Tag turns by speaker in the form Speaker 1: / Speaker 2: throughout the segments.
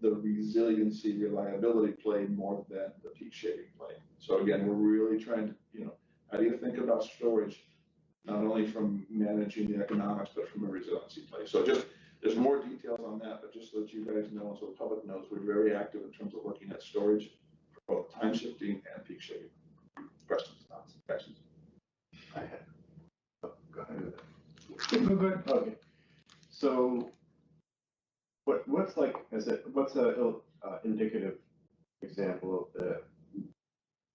Speaker 1: the resiliency, reliability play more than the peak shaving play. So again, we're really trying to, you know, how do you think about storage? Not only from managing the economics, but from a resiliency play. So just, there's more details on that, but just so that you guys know, and so the public knows, we're very active in terms of looking at storage for both time shifting and peak shaving. Questions, thoughts, questions?
Speaker 2: I had. oh, Go ahead.
Speaker 3: No, go ahead.
Speaker 2: Okay. So what, what's like, is it, what's a ill- uh, indicative example of the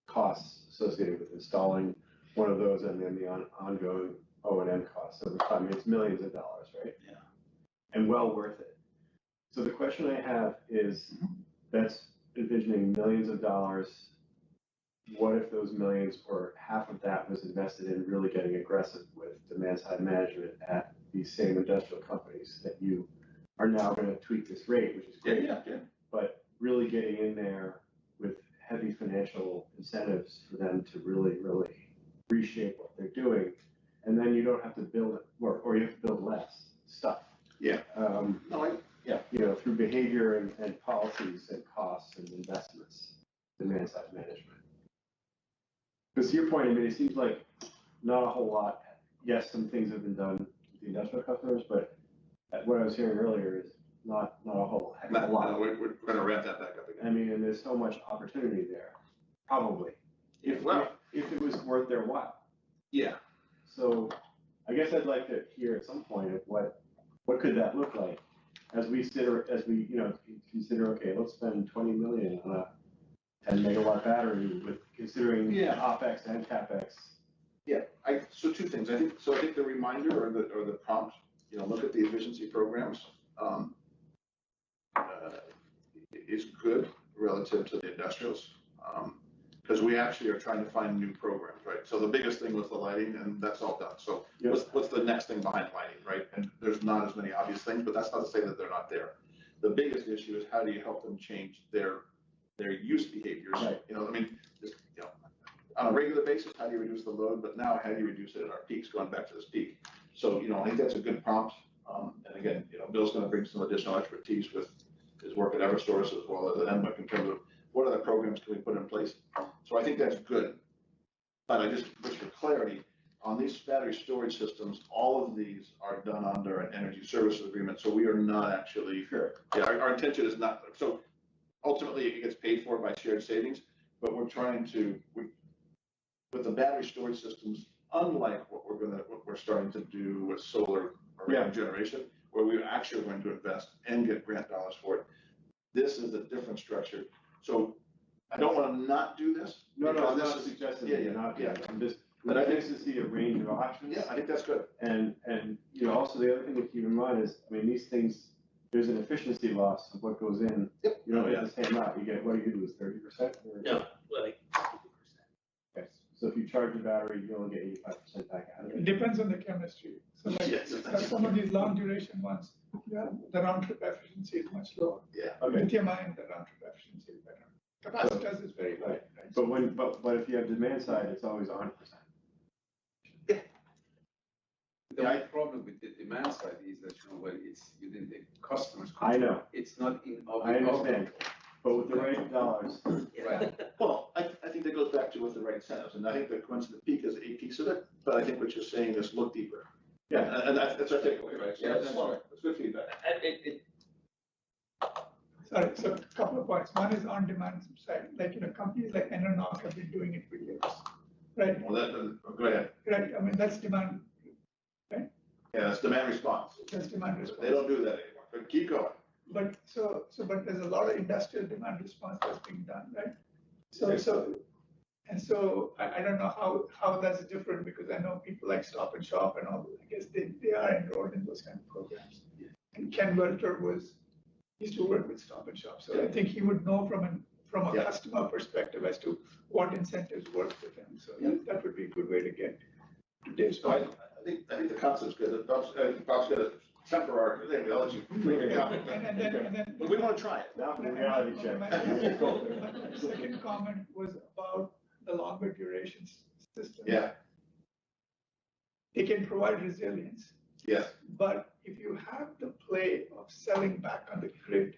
Speaker 2: costs associated with installing one of those and then the on, ongoing O and M costs over time? It's millions of dollars, right?
Speaker 1: Yeah.
Speaker 2: And well worth it. So the question I have is, that's envisioning millions of dollars. What if those millions or half of that was invested in really getting aggressive with demand side management at these same industrial companies that you are now gonna tweak this rate, which is
Speaker 1: Yeah,
Speaker 2: great,
Speaker 1: yeah, yeah.
Speaker 2: but really getting in there with heavy financial incentives for them to really, really reshape what they're doing. And then you don't have to build it, or, or you have to build less stuff.
Speaker 1: Yeah.
Speaker 2: Um,
Speaker 1: No, I,
Speaker 2: you know, through behavior and, and policies and costs and investments, demand side management. Because to your point, I mean, it seems like not a whole lot. Yes, some things have been done with the industrial customers, but what I was hearing earlier is not, not a whole heck of
Speaker 1: no,
Speaker 2: a lot.
Speaker 1: no, we're, we're gonna ramp that back up again.
Speaker 2: I mean, and there's so much opportunity there, probably, if,
Speaker 1: Well-
Speaker 2: if it was worth their while.
Speaker 1: Yeah,
Speaker 2: So I guess I'd like to hear at some point of what, what could that look like? As we consider, as we, you know, consider, okay, let's spend twenty million on a ten megawatt battery with considering
Speaker 1: Yeah.
Speaker 2: OpEx and CapEx.
Speaker 1: I, so two things, I think, so I think the reminder or the, or the prompt, you know, look at the efficiency programs, um, uh, is good relative to the industrials, um, because we actually are trying to find new programs, right? So the biggest thing was the lighting, and that's all done, so what's, what's the next thing behind lighting, right? And there's not as many obvious things, but that's not to say that they're not there. The biggest issue is how do you help them change their, their use behaviors,
Speaker 2: Right.
Speaker 1: you know, I mean, just, you know, on a regular basis, how do you reduce the load, but now how do you reduce it at our peaks, going back to this peak? So, you know, I think that's a good prompt, um, and again, you know, Bill's gonna bring some additional expertise with his work at Eversource as well as at NWIC in terms of what other programs can we put in place? So I think that's good. But I just, just for clarity, on these battery storage systems, all of these are done under an energy services agreement, so we are not actually,
Speaker 2: Sure.
Speaker 1: yeah, our, our intention is not, so ultimately it gets paid for by shared savings, but we're trying to, we, with the battery storage systems, unlike what we're gonna, what we're starting to do with solar or
Speaker 2: Yeah.
Speaker 1: generation, where we're actually going to invest and get grant dollars for it. This is a different structure, so I don't wanna not do this.
Speaker 2: No, no, I'm
Speaker 1: because
Speaker 2: not
Speaker 1: this is-
Speaker 2: suggesting
Speaker 1: yeah,
Speaker 2: that you're
Speaker 1: yeah,
Speaker 2: not,
Speaker 1: yeah.
Speaker 2: I'm just,
Speaker 1: But
Speaker 2: but
Speaker 1: I
Speaker 2: I
Speaker 1: think-
Speaker 2: think to see a range of options.
Speaker 1: Yeah, I think that's good,
Speaker 2: And, and, you know, also the other thing to keep in mind is, I mean, these things, there's an efficiency loss of what goes in.
Speaker 1: Yep.
Speaker 2: You don't
Speaker 4: Oh,
Speaker 2: get the same amount, you get, what do you lose, thirty percent?
Speaker 4: No, like fifty percent.
Speaker 2: Okay, so if you charge the battery, you only get eighty-five percent back out of
Speaker 3: It
Speaker 2: it.
Speaker 3: depends on the chemistry. So
Speaker 1: Yes.
Speaker 3: like, some of these long duration ones, yeah, the round trip efficiency is much lower.
Speaker 2: Okay,
Speaker 3: Lithium ion, the round trip efficiency is better. Capacitors is very high, right?
Speaker 2: but when, but, but if you have demand side, it's always hundred percent.
Speaker 5: The
Speaker 1: Yeah.
Speaker 5: only problem with the demand side is that, you know, well, it's within the customer's
Speaker 2: I
Speaker 5: control.
Speaker 2: know,
Speaker 5: It's not in our.
Speaker 2: I understand, but with the right dollars,
Speaker 5: Right.
Speaker 1: well, I, I think that goes back to with the right incentives, and I think the coincident peak is a piece of it, but I think what you're saying is look deeper.
Speaker 2: yeah,
Speaker 1: And, and that's, that's our takeaway, right? So
Speaker 5: Yeah,
Speaker 1: that's-
Speaker 5: that's right.
Speaker 1: That's good feedback.
Speaker 4: And it, it,
Speaker 3: Sorry, so a couple of points. One is on demand side, like, you know, companies like Enernoc have been doing it for years, right?
Speaker 1: Well, that, uh, go ahead,
Speaker 3: Right, I mean, that's demand,
Speaker 1: yeah, that's demand response,
Speaker 3: that's demand
Speaker 1: they
Speaker 3: response.
Speaker 1: don't do that anymore, but keep going.
Speaker 3: But, so, so, but there's a lot of industrial demand response that's being done, right? So, so, and so I, I don't know how, how that's different because I know people like Stop and Shop and all, I guess they, they are enrolled in those kind of programs. And Ken Welter was, used to work with Stop and Shop, so I think he would know from an, from a
Speaker 1: Yeah.
Speaker 3: customer perspective as to what incentives work for them. So
Speaker 1: Yeah.
Speaker 3: that would be a good way to get to Dave's
Speaker 1: So I,
Speaker 3: point.
Speaker 1: I think, I think the concept's good, Bob's, I think Bob's got a temper argument, there, I'll let you make a comment.
Speaker 3: And and then, and then.
Speaker 1: But we wanna try it.
Speaker 2: now for the reality check.
Speaker 3: My my second comment was about the longer duration s- system.
Speaker 1: Yeah,
Speaker 3: They can provide resilience,
Speaker 1: yes,
Speaker 3: but if you have the play of selling back on the grid,